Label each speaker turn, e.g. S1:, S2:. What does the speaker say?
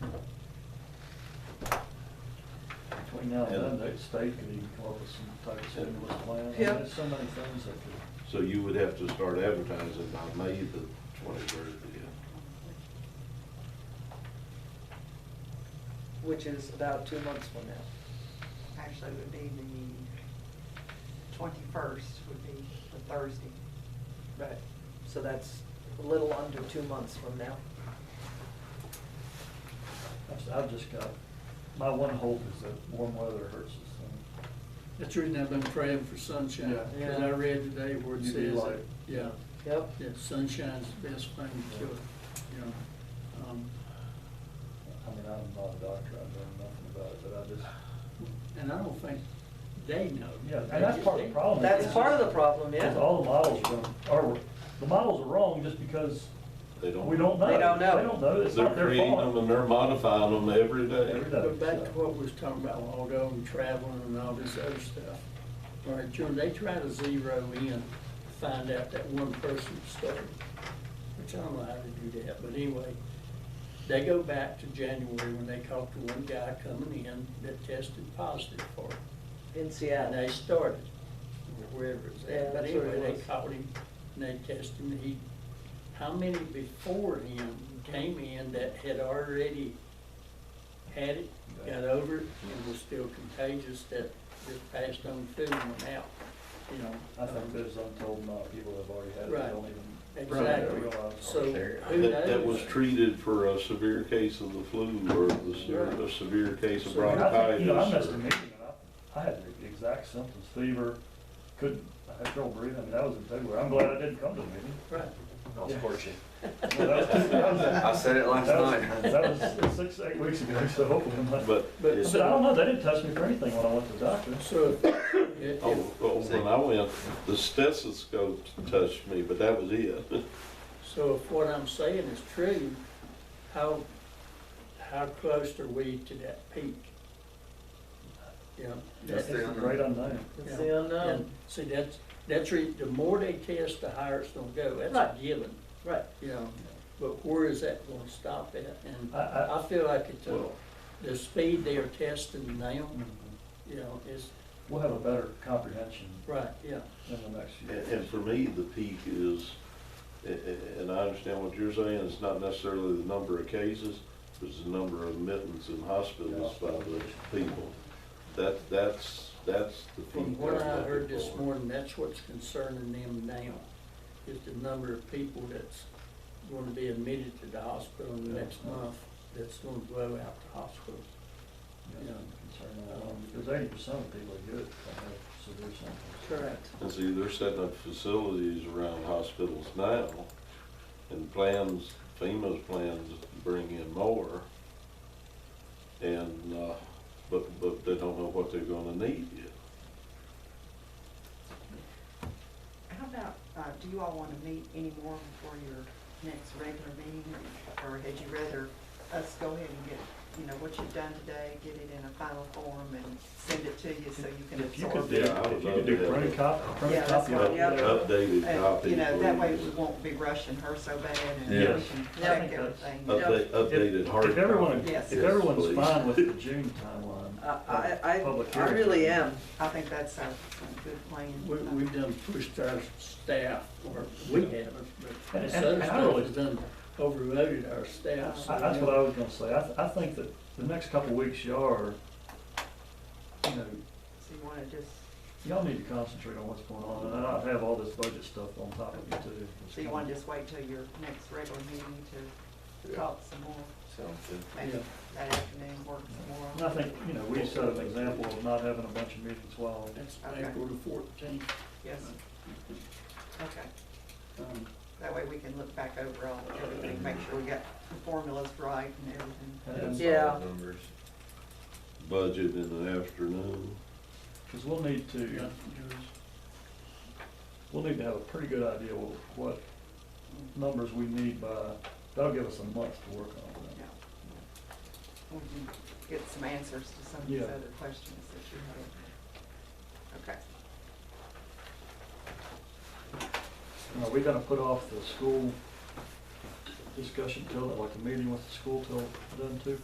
S1: Every now and then, that state could even come up with some type of stimulus plan. I mean,
S2: Yeah.
S1: There's so many things that could,
S3: So you would have to start advertising by May the twenty-third, yeah.
S2: which is about two months from now.
S4: Actually, it would be the twenty-first would be the Thursday.
S2: Right. So that's a little under two months from now.
S1: I've- I've just got, my one hope is that warm weather hurts us. and-
S5: That's the reason I've been praying for sunshine,
S1: Yeah.
S5: because I read today where it
S1: UV
S5: says, that-
S1: light.
S5: yeah,
S2: Yep.
S5: that sunshine's the best thing to cure, you know. Um,
S1: I mean, I'm not a doctor, I know nothing about it, but I just,
S5: And I don't think they know.
S1: yeah, and that's part of the problem.
S2: That's
S1: is-
S2: part of the problem, yeah.
S1: is All the models are, are, the models are wrong just because
S3: They don't.
S1: we don't know.
S2: They don't know.
S1: They don't know, it's
S3: They're
S1: not their
S3: creating them
S1: fault.
S3: and they're modifying them every day.
S1: Every day.
S5: But back to what we was talking about a while ago, and traveling and all this other stuff. All right, Jim, they try to zero in, find out that one person's story, which I don't know how to do that, but anyway. They go back to January when they caught the one guy coming in that tested positive for it.
S2: In
S5: And
S2: Seattle.
S5: they started, wherever it's
S2: Yeah,
S5: at, but
S2: that's where it
S5: anyway, they
S2: was.
S5: caught him, and they tested him, he, how many before him came in that had already had it, got over it, and was still contagious, that just passed on through and went out, you know?
S1: I think there's untold amount of people that have already had it,
S5: Right.
S1: they don't even.
S5: Exactly,
S1: realize.
S5: so who knows?
S3: That, that was treated for a severe case of the flu or the severe,
S5: Right.
S3: a severe case of
S5: So, I
S1: mean, I think,
S3: bronchitis.
S1: You know, I missed
S3: or-
S1: a meeting, and I, I had the exact symptoms, fever, couldn't, I had trouble breathing, I mean, that was in February, I'm glad I didn't come to the meeting.
S5: Right,
S6: That was fortunate.
S1: Well, that was- that was-
S6: I said it last
S1: that was-
S6: night.
S1: That was six, eight weeks ago, so hopefully, I'm not-
S3: But,
S5: but.
S1: but I don't know, they didn't test me for anything when I went to the doctor.
S5: So, if,
S3: oh,
S5: if,
S3: oh, when I went, the stethoscope touched me, but that was it.
S5: So if what I'm saying is true, how, how close are we to that peak? You know?
S1: It's
S5: that-
S6: the
S1: a great unknown.
S2: It's
S5: yeah,
S2: the unknown.
S5: and See, that's, that's, re- the more they test, the higher it's gonna go, that's a
S2: Right.
S5: given,
S2: Right.
S5: you know? But where is that gonna stop at? And
S1: I- I-
S5: I feel like it's, a-
S3: Well-
S5: the speed they are testing now, you know, is,
S1: We'll have a better comprehension
S5: right, yeah.
S1: in the next
S3: And-
S1: year.
S3: And for me, the peak is, a- a- and I understand what you're saying, it's not necessarily the number of cases, it's the number of admittance in hospitals by the people. That, that's, that's the peak.
S5: From what
S3: I'm
S5: I
S3: looking
S5: heard this
S3: for.
S5: morning, that's what's concerning them now, is the number of people that's gonna be admitted to the hospital in the next month, that's gonna blow out the hospital.
S1: Yeah, I'm concerned about that, Because eighty percent of people that get it, have severe symptoms.
S2: Correct.
S3: And see, they're setting up facilities around hospitals now, and plans, FEMA's plans bring in more. And, uh, but, but they don't know what they're gonna need yet.
S4: How about, uh, do you all want to meet anymore before your next regular meeting? Or had you rather us go ahead and get, you know, what you've done today, get it in a final form and send it to you so you can
S1: If you could
S4: absorb
S1: do,
S4: it?
S3: Yeah, I would
S1: if you could
S3: love
S1: do
S3: to have
S1: print
S3: it.
S1: copy, print
S4: Yeah, that's
S1: copy.
S4: what
S1: of
S4: the other-
S1: it.
S3: Updated
S4: And,
S3: copy.
S4: you know, that way
S3: please.
S4: we won't be rushing her so bad and
S1: Yeah.
S4: we can
S2: Yeah.
S4: check everything.
S3: Update, updated hard.
S1: If everyone,
S3: copy.
S4: Yes.
S1: if everyone's
S3: Please.
S1: fine with the June timeline.
S2: I, I-
S1: public
S2: I, I
S1: hearing.
S2: really am.
S4: I think that's a a good plan.
S5: We, we've done pushed our staff, or we haven't, but
S1: And-
S5: this
S1: and-
S5: other
S1: and I
S5: stuff
S1: really-
S5: has done overloaded our staff. so
S1: I- That's
S5: now-
S1: what I was gonna say, I, th- I think that the next couple weeks, y'all are, you know,
S4: So you want to just,
S1: y'all need to concentrate on what's going on, and I have all this budget stuff on top of you too.
S4: so you want to just wait till your next regular meeting to talk some more,
S6: Sounds good.
S4: maybe
S5: Yeah.
S4: that afternoon, work
S1: And
S4: some
S1: I
S4: more?
S1: think, you know, we set an example of not having a bunch of meetings while,
S5: That's
S4: Okay.
S5: April the fourteenth.
S4: Yes, okay.
S5: um,
S4: That way we can look back over all, everything, make sure we got the formulas right and everything.
S1: and,
S2: Yeah.
S6: Numbers.
S3: Budget in the afternoon.
S1: cause we'll need to, we'll need to have a pretty good idea what, what numbers we need by, that'll give us a month to work on
S4: Yeah.
S1: that.
S4: We can get some answers to some of these
S1: Yeah.
S4: other questions that you have. Okay,
S1: Now, Are we gonna put off the school discussion till, like the meeting with the school till then too?